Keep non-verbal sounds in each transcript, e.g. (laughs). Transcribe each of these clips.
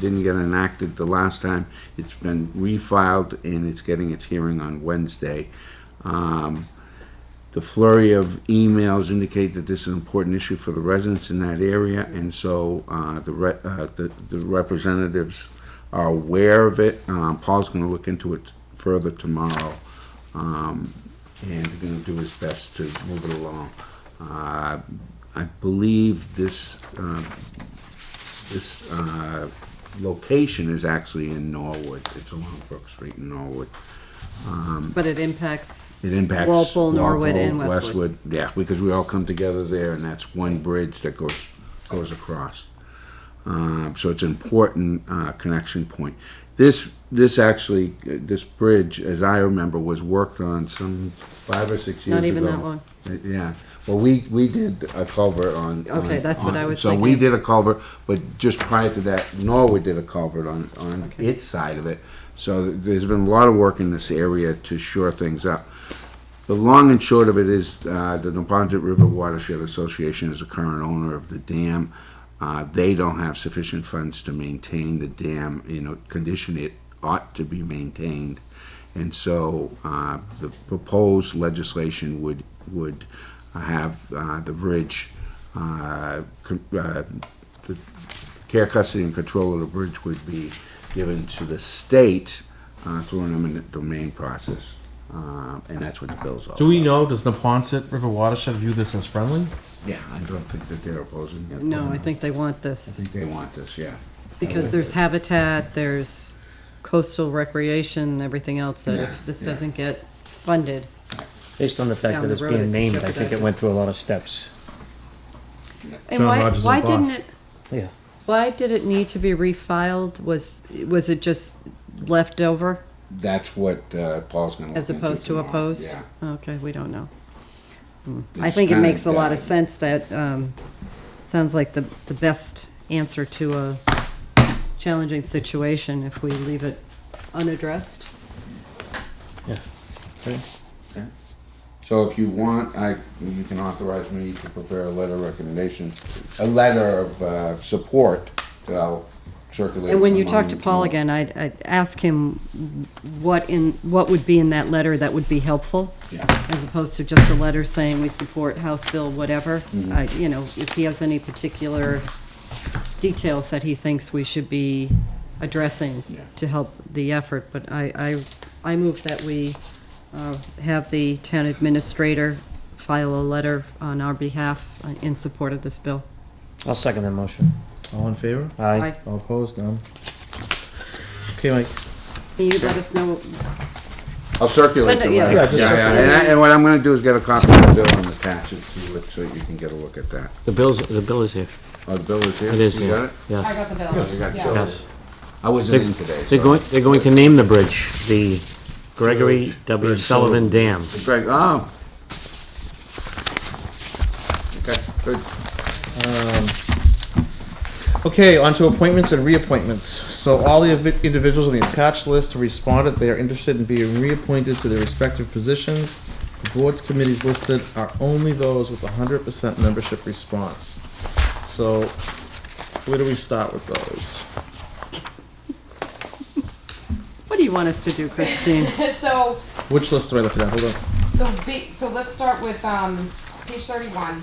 didn't get enacted the last time. It's been refiled and it's getting its hearing on Wednesday. Um, the flurry of emails indicate that this is an important issue for the residents in that area, and so uh, the re- uh, the the representatives are aware of it. Um, Paul's going to look into it further tomorrow, um, and going to do his best to move it along. Uh, I believe this uh, this uh, location is actually in Norwood. It's along Brook Street in Norwood. But it impacts. It impacts Walpole, Norwood, and Walpole, Westwood. Yeah, because we all come together there, and that's one bridge that goes goes across. Um, so it's an important uh, connection point. This this actually uh, this bridge, as I remember, was worked on some five or six years Not even ago. that long. Uh, Yeah. Well, we we did a culvert on. Okay, on- that's what on- I was So we thinking. did a culvert, but just prior to that, Norwood did a culvert on on Okay. its side of it. So there's been a lot of work in this area to shore things up. The long and short of it is, uh, the Napontet River Watershed Association is the current owner of the dam. Uh, They don't have sufficient funds to maintain the dam in a condition it ought to be maintained. And so uh, the proposed legislation would, would have uh, the bridge, uh, con- uh, the care, custody, and control of the bridge would be given to the state uh, through an eminent domain process. Uh, And that's what the bill's all about. Do we know, does the Ponset River watershed view this as friendly? Yeah, I don't think that they're opposing it. No, I think they want I this think they want this, yeah. because there's habitat, there's coastal recreation, everything else that Yeah, if this yeah. doesn't get funded, Based on the fact Down that the it's road, being it named, I think jeopardizes it went through a lot of steps. And John why, Rogers is why the didn't boss. it, Yeah. why did it need to be refiled? Was, was it just left over That's what uh, Paul's going to. as opposed to opposed? Yeah. Okay, we don't know. I It's think it kinda makes a lot of dead. sense that, um, sounds like the, the best answer to a challenging situation if we leave it unaddressed. So if you want, I, you can authorize me to prepare a letter of recommendation, a letter of uh, support that I'll circulate. And when you talk to among- Paul again, I'd, I'd ask him what in, what would be in that letter that would be helpful? Yeah. As opposed to just a letter saying we support House Bill whatever. Mm-hmm. I- You know, if he has any particular details that he thinks we should be addressing Yeah. to help the effort, but I, I, I move that we uh, have the town administrator file a letter on our behalf uh, in support of this bill. I'll second that motion. All in favor? Aye. Aye. All opposed? None. Okay, Mike. Can you let us know I'll circulate Send it, the yeah. letter. Yeah, just yeah. circulate And I- And what I'm going to do is get a copy of the bill and attach it to it so you can get a look at that. The bill's, the bill is here. Oh, the bill is here? It is You got here. it? Oh, Yeah. got the You got it. bill. So- Yes. I wasn't in today. They're so- going, they're going to name the bridge, the Gregory W. Sullivan Dam. Greg, oh. Okay, good. Okay, on to appointments and reappointments. So all the invi- individuals on the attached list have responded. They are interested in being reappointed to their respective positions. The boards committees listed are only those with hundred percent membership response. So where do we start with those? What do you want us to do, Christine? (laughs) so Which list do I look at? Hold on. so ba- so let's start with um page 31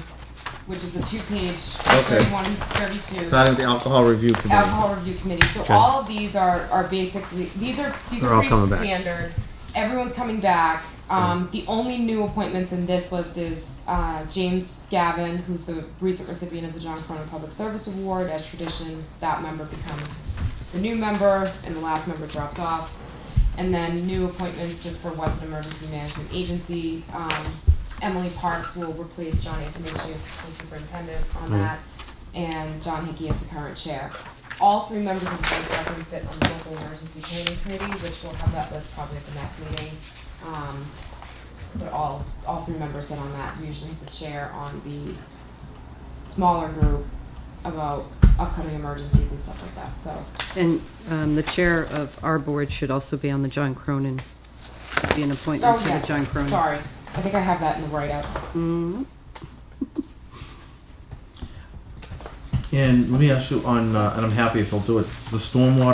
which is a two page Okay. 31 32 Not in the alcohol review committee. alcohol review committee so Okay. all of these are are basically these are these They're are all pretty coming back. standard everyone's coming back um, the only new appointments in this list is uh, James Gavin, who's the recent recipient of the John Cronin Public Service Award. As tradition, that member becomes the new member, and the last member drops off. And then new appointments just for Western Emergency Management Agency. Um, Emily Parks will replace John Antonucci as the school superintendent Mm-hmm. on that, and John Hickey as the current chair. All three members of the board of selectmen sit on the local emergency planning committee, which we'll have that list probably at the next meeting. Um, but all, all three members sit on that, usually the chair on the smaller group about upcoming emergencies and stuff like that, so. And um, the chair of our board should also be on the John Cronin, be an Oh, appointment to the yes, John Cronin. sorry, I think I have that in the write-up. Mm, And let me ask you on, uh, and I'm happy if you'll do it, the stormwater